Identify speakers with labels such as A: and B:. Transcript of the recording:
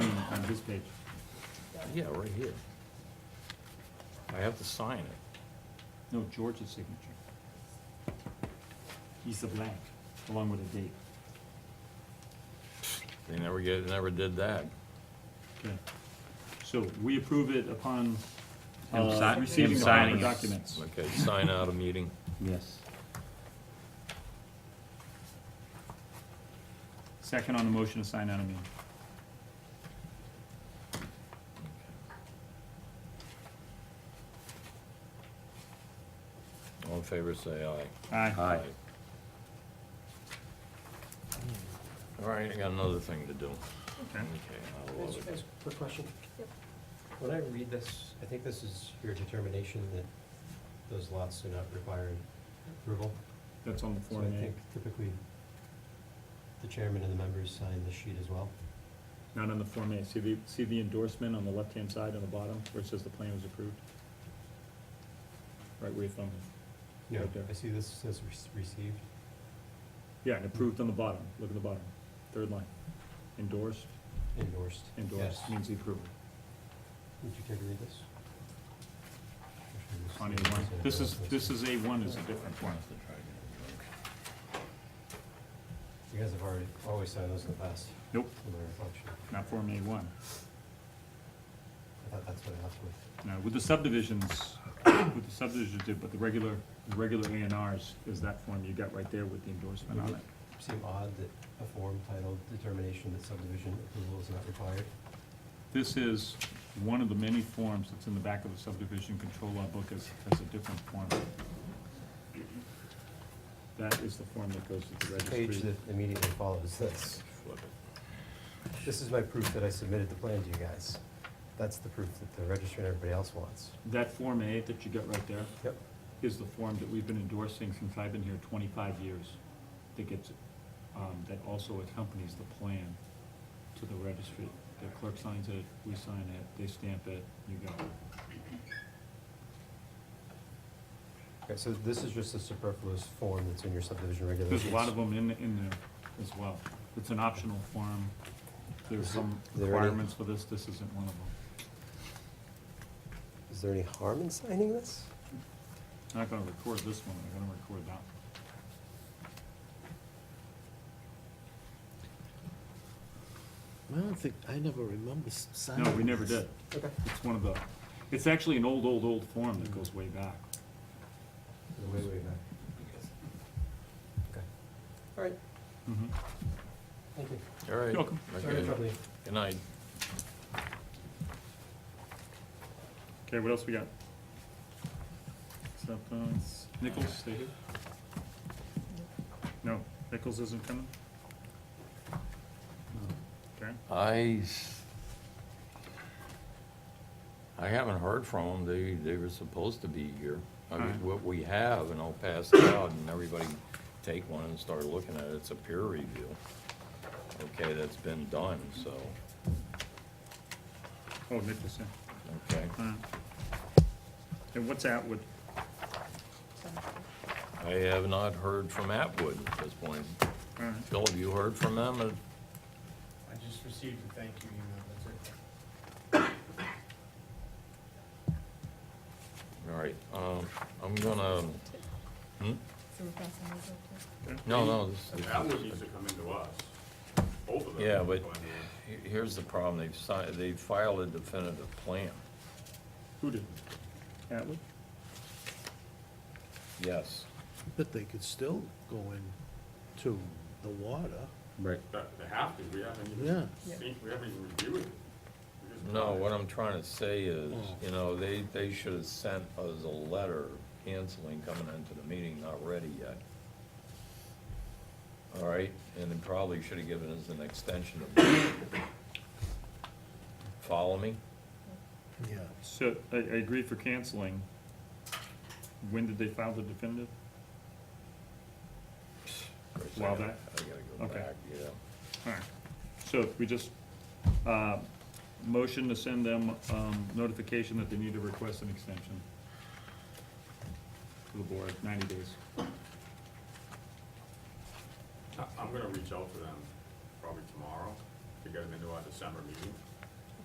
A: this page.
B: Yeah, right here. I have to sign it.
A: No, George's signature. He's the blank, along with a date.
B: They never get, never did that.
A: Okay. So we approve it upon
C: Him
A: uh,
C: si- him
A: receiving the
C: signing
A: proper
C: it.
A: documents.
B: Okay, sign out a meeting.
A: Yes. Second on the motion to sign out of meeting.
B: All in favor, say aye.
A: Aye.
C: Aye.
B: All right, I got another thing to do.
A: Okay.
B: Okay, I love
D: Ask-
B: it.
D: ask a quick question. When I read this, I think this is your determination that those lots do not require approval.
A: That's on the
D: So I
A: Form
D: think
A: A,
D: typically the chairman and the members sign this sheet as well.
A: not on the Form A. See the, see the endorsement on the left-hand side on the bottom where it says the plan was approved? Right where your thumb is.
D: No,
A: Right there.
D: I see this says re- received.
A: Yeah, and approved on the bottom. Look at the bottom, third line. Endorsed,
D: Endorsed.
A: endorsed Mm.
D: Yes.
A: means the approval.
D: Would you care to read this?
A: On A one. This is, this is A one is a different one.
D: You guys have already, always signed those in the past,
A: Nope,
D: in my reflection.
A: not Form A one.
D: I thought that's what I left with.
A: Now, with the subdivisions, with the subdivisions, did, but the regular, the regular A and Rs is that form you got right there with the endorsement on it.
D: Seem odd that a form titled determination that subdivision approval is not required.
A: This is one of the many forms that's in the back of the subdivision control law book as, as a different form. That is the form that goes to the
D: Page
A: registry.
D: that immediately follows this.
B: Flip it.
D: This is my proof that I submitted the plan to you guys. That's the proof that the registrar and everybody else wants.
A: That Form A that you got right there
D: Yep.
A: is the form that we've been endorsing since I've been here twenty-five years. That gets, um, that also accompanies the plan to the registry. The clerk signs it, we sign it, they stamp it, you go.
D: Okay, so this is just a superfluous form that's in your subdivision regulations.
A: There's a lot of them in, in there as well. It's an optional form. There's some
D: Is there any-
A: requirements for this, this isn't one of them.
D: Is there any harm in signing this?
A: I'm not gonna record this one, I'm gonna record that one.
E: I don't think, I never remember s- signing.
A: No, we never
E: this.
A: did.
D: Okay.
A: It's one of the, it's actually an old, old, old form that goes way back.
D: Way, way back. Okay. All right, Mm-hmm.
A: Mhm.
D: thank you.
B: All right.
A: You're welcome.
D: Sorry to
B: Okay.
D: trouble you.
B: Good night.
A: Okay, what else we got? Acceptance, Nichols, stay here? No, Nichols isn't coming? Okay,
B: I, s- I haven't heard from them. They, they were supposed to be here. I
A: Alright.
B: mean, what we have, and I'll pass it out, and everybody take one and start looking at it. It's a peer review. Okay, that's been done, so,
A: oh, Nichols, yeah.
B: okay.
A: Alright. And what's Atwood?
B: I have not heard from Atwood at this point.
A: Alright,
B: Phil, have you heard from them? Uh,
F: I just received a thank you email, that's it.
B: All right, um, I'm gonna, hmm?
G: So we're passing those up to?
B: No, no, this,
H: That one needs to come into us, both of them.
B: Yeah, but-
H: Going to-
B: he- here's the problem. They've signed, they filed a definitive plan.
A: who did? Atwood?
B: Yes.
E: But they could still go in to the water.
C: Right.
H: that- They have to, we haven't
E: Yeah.
H: even seen, we haven't even reviewed it. We just-
B: No, what I'm trying to say is, you know, they, they should have sent us a letter canceling coming into the meeting, not ready yet. All right, and then probably should have given us an extension of. Follow me?
E: Yeah.
A: So, I, I agree for canceling. When did they file the definitive?
B: For a
A: While
B: second.
A: back?
B: I gotta go
A: Okay.
B: back, yeah.
A: Alright, so if we just, uh, motion to send them, um, notification that they need to request an extension to the board, ninety days.
H: I- I'm gonna reach out to them probably tomorrow to get them into our December meeting.